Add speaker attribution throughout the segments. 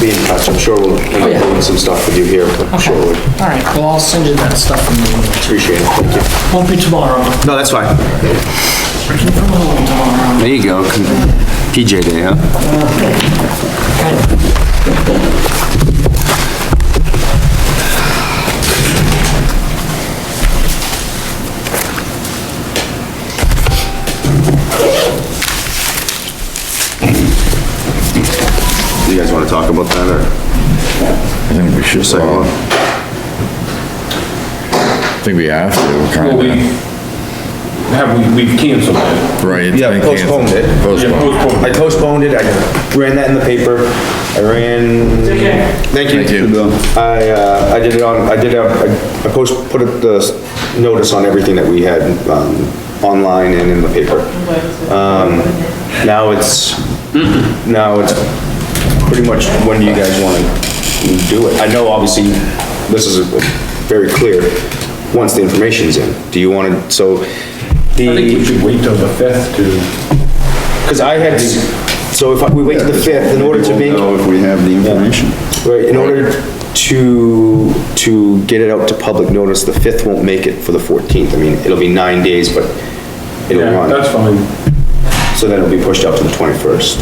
Speaker 1: be in touch, I'm sure we'll, we'll be doing some stuff with you here, but shortly.
Speaker 2: All right, well, I'll send you that stuff. in the email.
Speaker 1: Appreciate it, thank you.
Speaker 2: Won't be tomorrow.
Speaker 1: No, that's fine.
Speaker 2: Working from home tomorrow.
Speaker 3: There you go, con- PJ day, huh?
Speaker 4: You guys wanna talk about that, or?
Speaker 5: I think we should, well, I think we have to,
Speaker 6: Well, we,
Speaker 5: kinda.
Speaker 6: have, we- we've canceled it.
Speaker 5: Right. it's
Speaker 1: Yeah,
Speaker 5: been canceled.
Speaker 1: postponed it.
Speaker 6: Yeah,
Speaker 5: Postponed.
Speaker 6: postpone.
Speaker 1: I postponed it, I ran that in the paper, I ran. Thank you.
Speaker 5: Thank you.
Speaker 1: I, uh, I did it on, I did, a- I post, put it- the s- notice on everything that we had, um, online and in the paper. Um, now it's, now it's pretty much when do you guys wanna do it? I know obviously, this is a- very clear, once the information's in, do you wanna, so the.
Speaker 6: I think we should wait till the fifth to.
Speaker 1: Because I had, so if we wait to the 5th, in order to make,
Speaker 4: We'll know if we have the information.
Speaker 1: right, in order to, to get it out to public notice, the 5th won't make it for the 14th. I mean, it'll be nine days, but it'll
Speaker 6: Yeah, that's
Speaker 1: run,
Speaker 6: fine.
Speaker 1: so then it'll be pushed up to the 21st.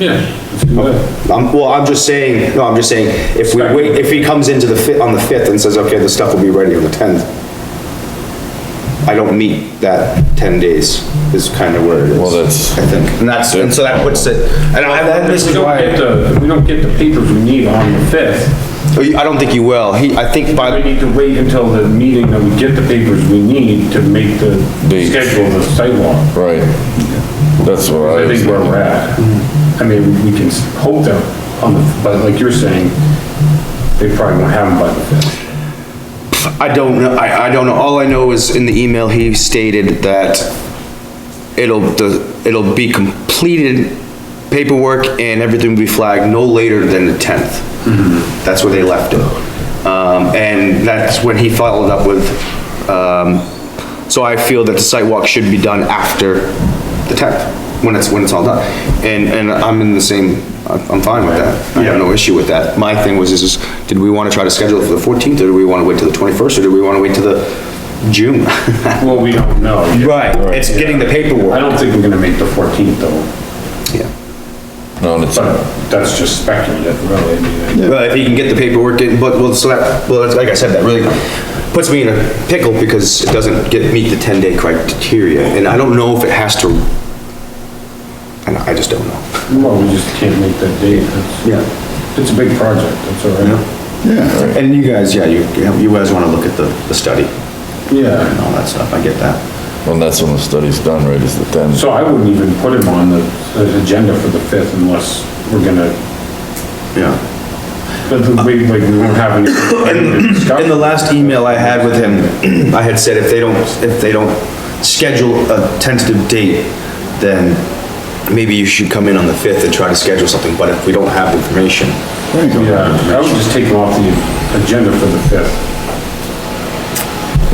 Speaker 6: Yeah. let's do that.
Speaker 1: I'm, well, I'm just saying, no, I'm just saying, if we wait, if he comes into the 5th, on the 5th and says, okay, the stuff will be ready on the 10th, I don't meet that 10 days is kind of where it is.
Speaker 5: Well, that's-
Speaker 1: I think, and that's, and so that puts it, and I, that, this
Speaker 6: If we
Speaker 1: is
Speaker 6: don't
Speaker 1: why.
Speaker 6: get the, if we don't get the papers we need on the fifth,
Speaker 1: Oh, you- I don't think you will. He, I think
Speaker 6: we
Speaker 1: by,
Speaker 6: need to wait until the meeting that we get the papers we need to make the
Speaker 5: Date.
Speaker 6: schedule of the sidewalk.
Speaker 5: Right. That's what I
Speaker 6: I
Speaker 5: was
Speaker 6: think where
Speaker 5: thinking.
Speaker 6: we're at. I mean, we can s- hope that on the, but like you're saying, they probably won't have them by the fifth.
Speaker 1: I don't know, I, I don't know. All I know is in the email, he stated that it'll, the, it'll be completed paperwork and everything will be flagged no later than the tenth. That's where they left it. Um, and that's when he followed up with, um, so I feel that the site walk should be done after the tenth, when it's, when it's all done. And, and I'm in the same, I'm I'm fine with that. I have no issue with that. My thing was, is, is did we wanna try to schedule it for the fourteenth, or do we wanna wait till the twenty-first, or do we wanna wait till the June?
Speaker 6: Well, we don't know. yet.
Speaker 1: It's getting the
Speaker 6: I
Speaker 1: paperwork.
Speaker 6: don't think we're gonna make the fourteenth though,
Speaker 5: No, it's,
Speaker 6: but that's just speculative, really. I mean,
Speaker 1: Well, if he can get the paperwork in, but, well, so that, well, that's- like I said, that really puts me in a pickle because it doesn't get, meet the ten-day criteria, and I don't know if it has to. And I just don't know.
Speaker 6: Well, we just can't make that date. That's- It's a big project, that's all right.
Speaker 5: yeah,
Speaker 1: And you guys, yeah, you, you guys wanna look at the, the study and
Speaker 6: Yeah,
Speaker 1: all that stuff, I get that.
Speaker 5: well, that's when the study's done, right, is the ten.
Speaker 6: so I wouldn't even put him on the, the agenda for the fifth unless we're gonna,
Speaker 1: Yeah.
Speaker 6: but we, like, we won't have any.
Speaker 1: In the last email I had with him, I had said if they don't, if they don't schedule a tentative date, then maybe you should come in on the 5th and try to schedule something, but if we don't have information,
Speaker 6: Yeah, I would just take him off the agenda for the fifth,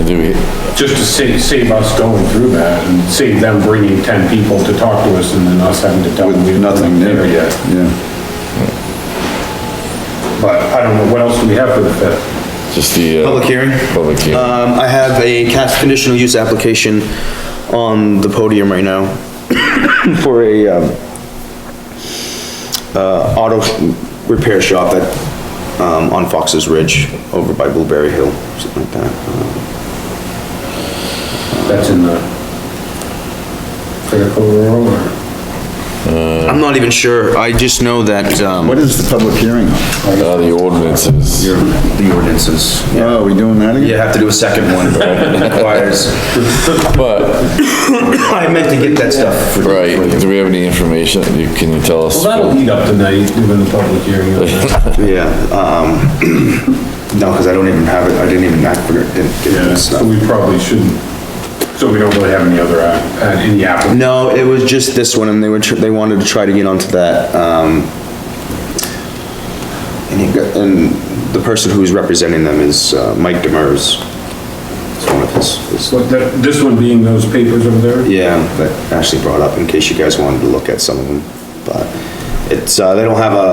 Speaker 5: Do we,
Speaker 6: just to save, save us going through that and save them bringing ten people to talk to us and then us having to tell them. we-
Speaker 4: Nothing there yet,
Speaker 6: yet.
Speaker 4: yeah.
Speaker 6: But I don't know, what else do we have for the fifth?
Speaker 5: just the. uh,
Speaker 1: Public hearing?
Speaker 5: Public hearing.
Speaker 1: Um, I have a cast conditional use application on the podium right now for a, um, uh, auto repair shop at, um, on Fox's Ridge over by Blueberry Hill, something like that.
Speaker 6: That's in the Fairco Rural or?
Speaker 1: I'm not even sure, I just know that, um,
Speaker 4: What is the public hearing on?
Speaker 5: Uh, the ordinances.
Speaker 1: the ordinances.
Speaker 4: Oh, are we doing that
Speaker 1: You
Speaker 4: again?
Speaker 1: have to do a second one, it requires,
Speaker 5: But,
Speaker 1: I meant to get that stuff. for-
Speaker 5: right, do we have any information, You- can you tell us?
Speaker 6: Well, that'll eat up the night, doing the public hearing. on that.
Speaker 1: Yeah, um, no, because I don't even have it, I didn't even, I forgot, didn't get
Speaker 6: Yeah,
Speaker 1: that
Speaker 6: so
Speaker 1: stuff.
Speaker 6: we probably shouldn't, so we don't really have any other, app- uh, any applicant.
Speaker 1: No, it was just this one, and they were, tr- they wanted to try to get onto that, um, and he got, and the person who's representing them is uh, Mike Demers. It's one of his, his-
Speaker 6: But that, this one being those papers over there?
Speaker 1: yeah, that Ashley brought up, in case you guys wanted to look at some of them, but it's, uh, they don't have a